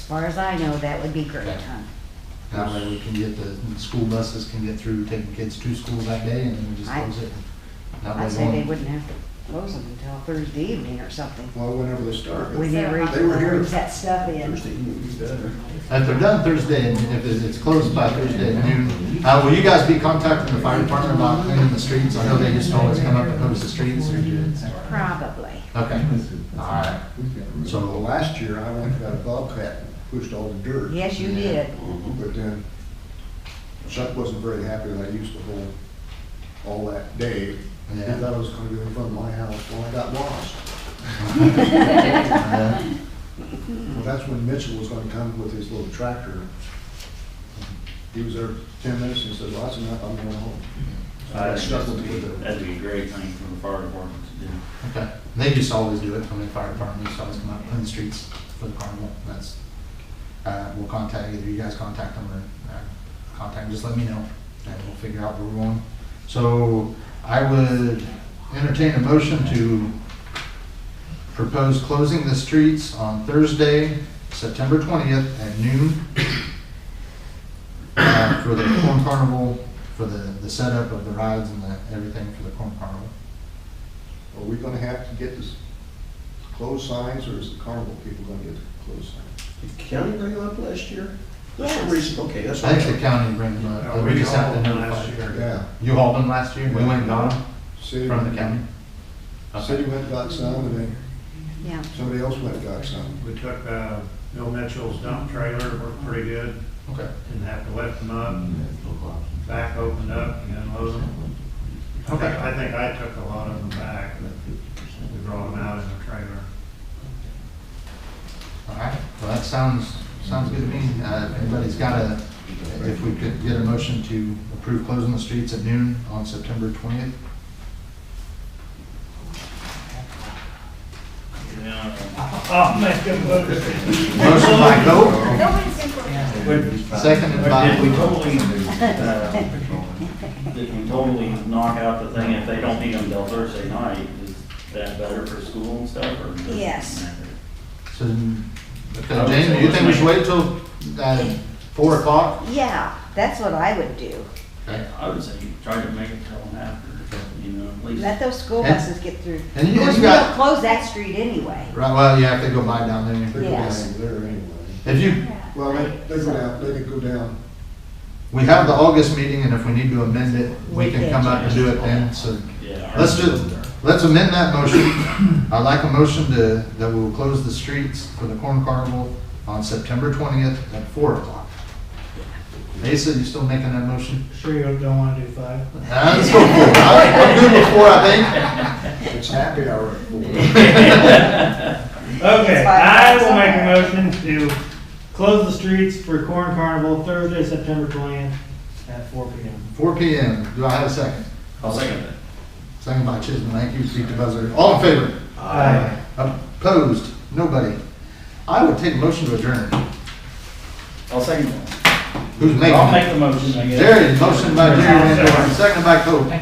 far as I know, that would be great, Yeah. huh? That way we can get the, the school buses can get through taking kids to school that day and then we just I- close it. That way I'd say they one- wouldn't have to close them until Thursday evening or something. Well, whenever they start, We but never They were even here. brings that stuff in. Thursday evening would be better. If they're done Thursday, and if it's- it's closed by Thursday at noon, uh, will you guys be contacting the fire department about cleaning the streets? I know they just always come up and notice the streets or do it. Probably. Okay, alright. So last year, I went and got a bobcat and pushed all the dirt. Uh-huh. Yes, you did. But then Chuck wasn't very happy that I used the whole, all that day. He Yeah. thought I was gonna be in front of my house, well, I got lost. Uh, Well, that's when Mitchell was gonna come with his little tractor. He was there ten minutes and said, well, that's enough, I'm going home. So I I got think stuck that'd with be, it. that'd be a great thing for the fire department to do. Okay, they just always do it, I mean, fire department used to always come out and clean the streets for the carnival, that's, uh, we'll contact, either you guys contact them or, uh, contact, just let me know, and we'll figure out where we're going. So, I would entertain a motion to propose closing the streets on Thursday, September twentieth at noon, uh, for the corn carnival, for the, the setup of the rides and the, everything for the corn carnival. Are we gonna have to get this closed signs, or is the carnival people gonna get the closed signs? Did the county bring them up last year? That's the Yes. reason- Okay, that's. I think okay. the county brings them up, but Oh, Uh, we just have to notify. Yeah, You hauled them last year? We went and got them city. from the county? City went and got some, and then Yeah. somebody else went and got some. We took uh, Bill Mitchell's dump trailer, worked pretty good, Okay. didn't have to lift them up, back opened up and unload them. I think, Okay. I think I took a lot of them back, but we brought them out in the trailer. All right, well, that sounds, sounds good to me. Uh, if anybody's got a, if we could get a motion to approve closing the streets at noon on September twentieth? I'll Oh, make a motion. Motion by Coe, seconded by. Did we totally, uh, did we totally knock out the thing, if they don't need them till Thursday night, is that better for school and stuff, or? does it Yes. matter? So, okay, Jane, do you think we should wait till, uh, four o'clock? Yeah, that's what I would do. Okay. I would say try to make it till after, you know, at least. Let those school And- buses get through. and you- Of course, you we got- don't close that street anyway. Right, well, yeah, if they go by down They there. go Yes. down there anyway. If you, Well, they, they go down, they can go down. We have the August meeting, and if we need to amend it, we can come up and do it then, so. Yeah. Let's do, let's amend that motion. I'd like a motion to, that we will close the streets for the corn carnival on September twentieth at four o'clock. Mesa, you still making that motion? Sure you don't want to do five? Ah, Let's go four. I- I'm good with four, I It's happy hour at four. Okay, It's five I bucks will make a somewhere. motion to close the streets for Corn Carnival Thursday, September twentieth at four P M. think. Four P M. Do I have a second? I'll second that. Second by Chisholm. Thank you, beat the buzzer. All in favor? Aye. Opposed? Nobody. I would take a motion to adjourn. I'll second that. Who's making I'll it? make the motion, I guess. Jerry, motion by Jerry Van Dorn, second by Coe.